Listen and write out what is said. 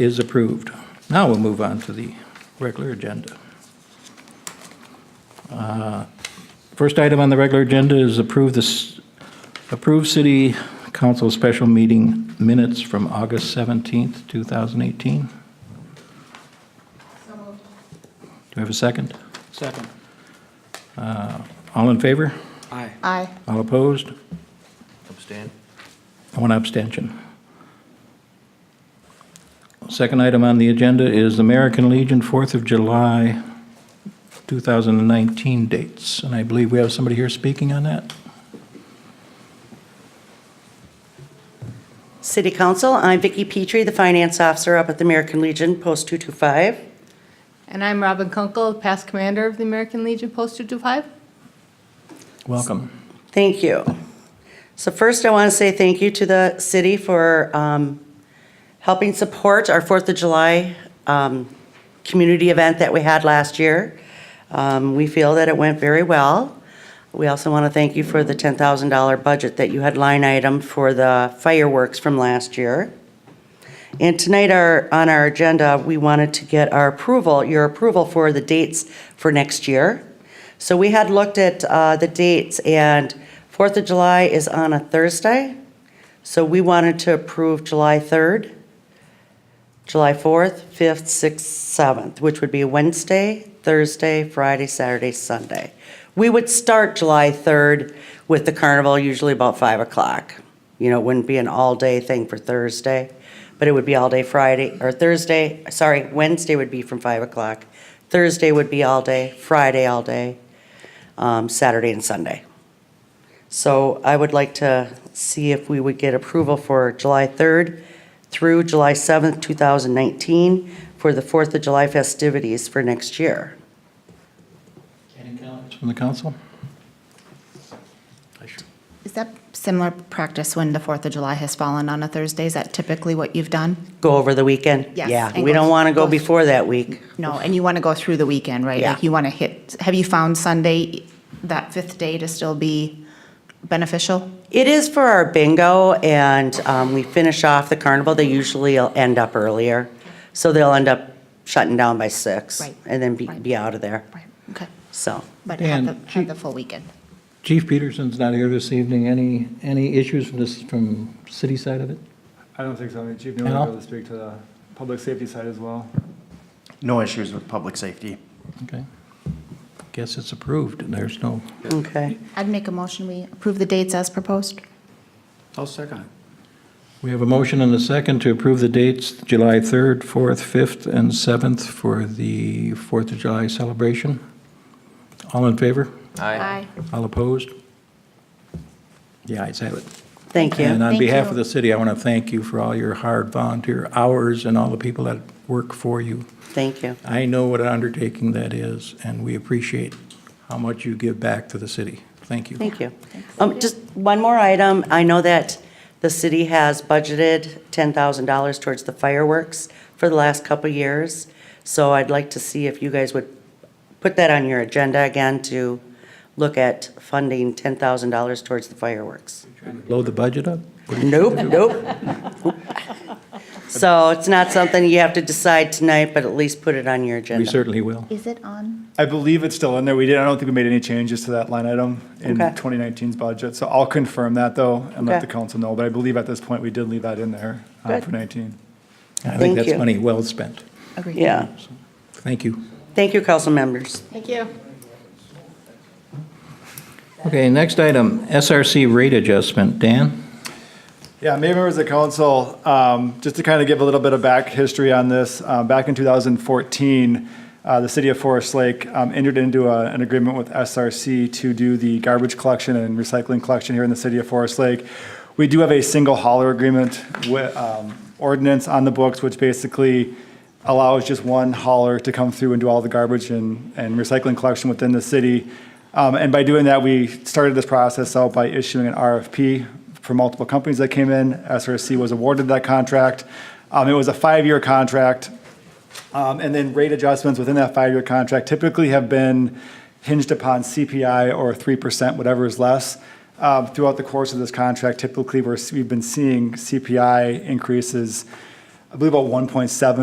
is approved. Now we'll move on to the regular agenda. Uh, First item on the regular agenda is approve this, approve city council special meeting minutes from August 17th, 2018. Do we have a second? Second. All in favor? Aye. Aye. All opposed? Abstain. One abstention. Second item on the agenda is American Legion, 4th of July, 2019 dates. And I believe we have somebody here speaking on that. City Council, I'm Vicki Petrie, the Finance Officer up at the American Legion, Post 225. And I'm Robin Kunkel, past commander of the American Legion Post 225. Welcome. Thank you. So first, I want to say thank you to the city for um, helping support our Fourth of July um, community event that we had last year. Um, We feel that it went very well. We also want to thank you for the $10,000 budget that you had line item for the fireworks from last year. And tonight, our, on our agenda, we wanted to get our approval, your approval for the dates for next year. So we had looked at uh, the dates, and Fourth of July is on a Thursday, so we wanted to approve July 3rd, July 4th, 5th, 6th, 7th, which would be Wednesday, Thursday, Friday, Saturday, Sunday. We would start July 3rd with the carnival, usually about 5 o'clock. You know, it wouldn't be an all-day thing for Thursday, but it would be all day Friday, or Thursday, sorry, Wednesday would be from 5 o'clock. Thursday would be all day, Friday all day, um, Saturday and Sunday. So I would like to see if we would get approval for July 3rd through July 7th, 2019, for the 4th of July festivities for next year. Any comments from the council? Is that similar practice when the Fourth of July has fallen on a Thursday? Is that typically what you've done? Go over the weekend? Yes, Yeah, and we go- don't want to go go- before that week. No, and you want to go through the weekend, right? Yeah. Like you want to hit, have you found Sunday, that fifth day to still be beneficial? It is for our bingo, and um, we finish off the carnival. They usually will end up earlier, so they'll end up shutting down by six, Right. and then be Right. be out of there, Right, okay. so. But Dan, have the, have the full weekend. Chief Peterson's not here this evening. Any, any issues from this, from city side of it? I don't think so. I mean, Chief Al? Newman will speak to the public safety side as well. No issues with public safety. Okay. Guess it's approved and there's no, Okay. I'd make a motion, we approve the dates as proposed. I'll second it. we have a motion and a second to approve the dates, July 3rd, 4th, 5th, and 7th for the 4th of July celebration. All in favor? Aye. All opposed? The ayes have it. Thank you. And on Thank behalf of you. the city, I want to thank you for all your hard volunteer hours and all the people that work for you. Thank you. I know what an undertaking that is, and we appreciate how much you give back to the city. Thank you. Thank you. Um, Just one more item. I know that the city has budgeted $10,000 towards the fireworks for the last couple of years. So I'd like to see if you guys would put that on your agenda again to look at funding $10,000 towards the fireworks. Blow the budget up? Nope, nope. So it's not something you have to decide tonight, but at least put it on your We agenda. certainly will. Is it on? I believe it's still in there. We did, I don't think we made any changes to that line item in Okay. 2019's budget. So I'll confirm that though and let Okay. the council know. But I believe at this point, we did leave that in there uh, Good. for 19. I think Thank that's you. money well spent. Agreed. Yeah. Thank you. Thank you, council members. Thank you. Okay, next item, SRC rate adjustment. Dan? Yeah, maybe members of council, um, just to kind of give a little bit of back history on this, uh, back in 2014, uh, the city of Forest Lake um, entered into a- an agreement with SRC to do the garbage collection and recycling collection here in the city of Forest Lake. We do have a single hauler agreement with um, ordinance on the books, which basically allows just one hauler to come through and do all the garbage and, and recycling collection within the city. Um, and by doing that, we started this process out by issuing an RFP for multiple companies that came in. SRC was awarded that contract. Um, it was a five-year contract. Um, And then rate adjustments within that five-year contract typically have been hinged upon CPI or 3%, whatever is less. Um, Throughout the course of this contract, typically, we're, we've been seeing CPI increases I believe about 1.7